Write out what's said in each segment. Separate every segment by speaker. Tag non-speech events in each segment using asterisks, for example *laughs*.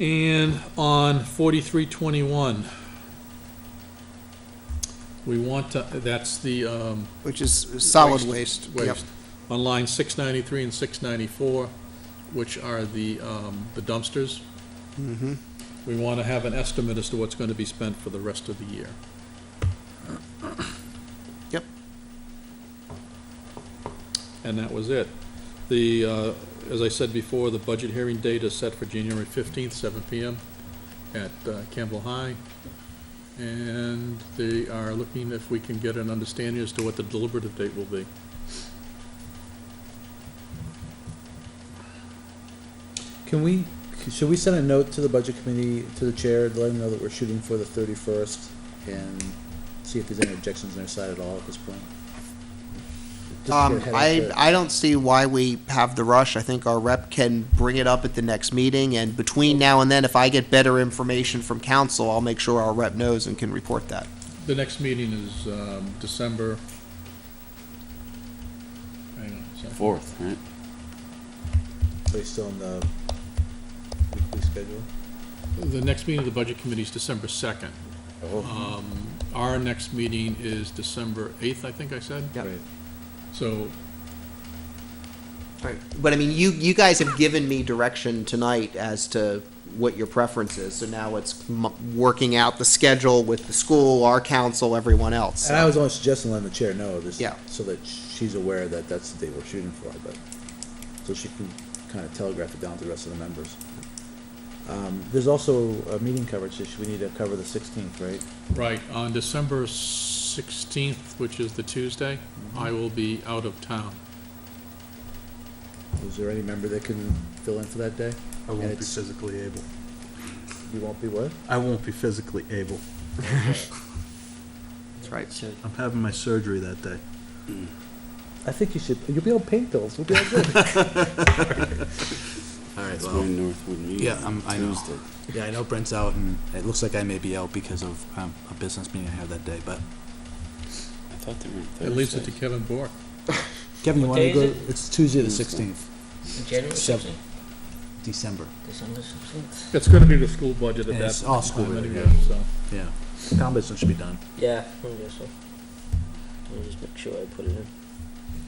Speaker 1: And on forty-three twenty-one, we want to, that's the, um,
Speaker 2: which is solid waste. Yep.
Speaker 1: waste. On line six ninety-three and six ninety-four, which are the, um, the dumpsters.
Speaker 2: Mhm.
Speaker 1: We want to have an estimate as to what's going to be spent for the rest of the year.
Speaker 2: Yep.
Speaker 1: And that was it. The, uh, as I said before, the budget hearing date is set for January 15th, 7 PM at uh, Campbell High. And they are looking if we can get an understanding as to what the deliberative date will be.
Speaker 3: Can we, should we send a note to the budget committee, to the chair, to let them know that we're shooting for the thirty-first? And see if there's any objections on their side at all at this point? Just to get
Speaker 2: Um,
Speaker 3: ahead of
Speaker 2: I,
Speaker 3: the-
Speaker 2: I don't see why we have the rush. I think our rep can bring it up at the next meeting, and between now and then, if I get better information from council, I'll make sure our rep knows and can report that.
Speaker 1: The next meeting is um, December, hang on a second.
Speaker 4: Fourth, right?
Speaker 3: Based on the weekly schedule?
Speaker 1: The next meeting of the Budget Committee is December 2nd. Um, Our next meeting is December 8th, I think I said.
Speaker 2: Yep.
Speaker 3: Right.
Speaker 1: So
Speaker 2: But I mean, you, you guys have given me direction tonight as to what your preference is, so now it's m- working out the schedule with the school, our council, everyone else.
Speaker 3: And I was only suggesting letting the chair know, just
Speaker 2: Yeah.
Speaker 3: so that she's aware that that's the date we're shooting for, but, so she can kind of telegraph it down to the rest of the members. Um, there's also a meeting coverage issue, we need to cover the sixteenth, right?
Speaker 1: Right, on December 16th, which is the Tuesday, I will be out of town.
Speaker 3: Is there any member that can fill in for that day?
Speaker 5: I
Speaker 3: And
Speaker 5: won't be
Speaker 3: it's-
Speaker 5: physically able.
Speaker 3: You won't be what?
Speaker 5: I won't be physically able.
Speaker 2: That's right.
Speaker 5: I'm having my surgery that day.
Speaker 3: I think you should, you'll be on pain pills, we'll be all
Speaker 5: *laughs*
Speaker 3: good.
Speaker 6: All right,
Speaker 4: That's
Speaker 6: well,
Speaker 4: when Northwood meets.
Speaker 6: Yeah, I'm- I know.
Speaker 4: Tuesday.
Speaker 6: yeah, I know Brent's out, and it looks like I may be out because of um, a business meeting I have that day, but
Speaker 4: I thought they were on Thursday.
Speaker 1: It leaves it to Kevin Bork.
Speaker 6: Kevin, you
Speaker 7: What
Speaker 6: want to
Speaker 7: day
Speaker 6: go?
Speaker 7: is
Speaker 6: It's Tuesday the
Speaker 4: Tuesday.
Speaker 6: 16th,
Speaker 7: January
Speaker 6: Seven.
Speaker 7: sixteenth,
Speaker 6: December.
Speaker 7: December sixteenth.
Speaker 1: It's going to be the school budget at
Speaker 6: And
Speaker 1: that
Speaker 6: it's all school
Speaker 1: time
Speaker 6: related,
Speaker 1: anyway, so.
Speaker 6: Yeah. Town business should be done.
Speaker 7: Yeah, I guess so. Let me just make sure I put it in.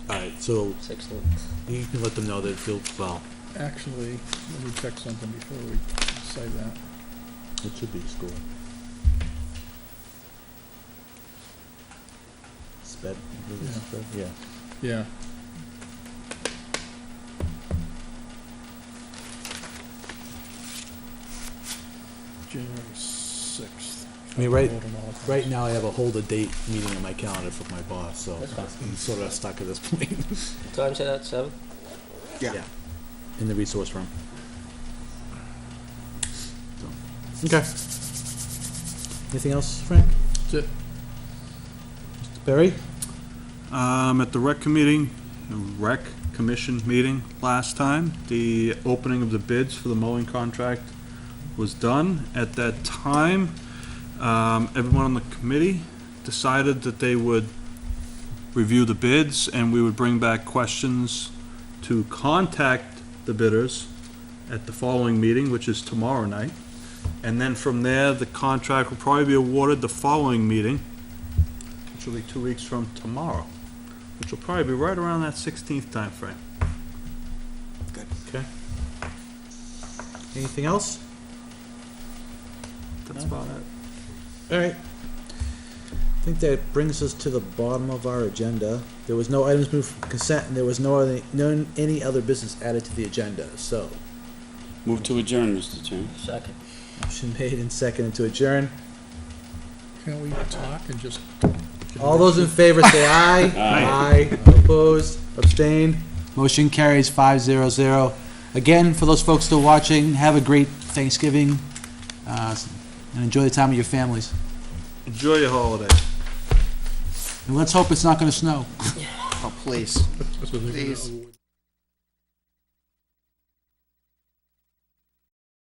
Speaker 6: All right, so
Speaker 7: Sixteenth.
Speaker 6: you can let them know that it feels, well,
Speaker 1: Actually, let me check something before we say that.
Speaker 3: It should be school. Sped,
Speaker 1: it Yeah.
Speaker 3: yeah.
Speaker 1: Yeah. January 6th.
Speaker 6: I mean, right-
Speaker 1: Vote on all accounts.
Speaker 6: right now I have a hold a date meeting on my calendar for my boss, so
Speaker 7: That's fine.
Speaker 6: I'm sort of stuck at this point.
Speaker 3: *laughs*
Speaker 7: Time set out seven?
Speaker 2: Yeah.
Speaker 6: In the resource room. Okay.
Speaker 3: Anything else, Frank?
Speaker 1: That's it.
Speaker 3: Barry?
Speaker 5: Um, at the rec committee, rec commission meeting last time, the opening of the bids for the mowing contract was done. At that time, um, everyone on the committee decided that they would review the bids and we would bring back questions to contact the bidders at the following meeting, which is tomorrow night. And then from there, the contract will probably be awarded the following meeting, which will be two weeks from tomorrow, which will probably be right around that 16th timeframe.
Speaker 3: Anything else?
Speaker 5: That's about it.
Speaker 3: All right. I think that brings us to the bottom of our agenda. There was no items moved from consent, and there was no other, no, any other business added to the agenda, so.
Speaker 4: Move to adjourn, Mr. Chairman.
Speaker 7: Second.
Speaker 3: Motion *laughs* made and seconded to adjourn.
Speaker 1: Can we talk and just?
Speaker 3: All those in favor say aye.
Speaker 4: Aye.
Speaker 3: Aye. Opposed, abstained.
Speaker 6: Motion carries five zero zero. Again, for those folks still watching, have a great Thanksgiving, uh, and enjoy the time with your families.
Speaker 5: Enjoy your holiday.
Speaker 6: And let's hope it's not gonna snow.
Speaker 2: Oh, please.
Speaker 1: That's what they're gonna
Speaker 2: Please.
Speaker 1: award.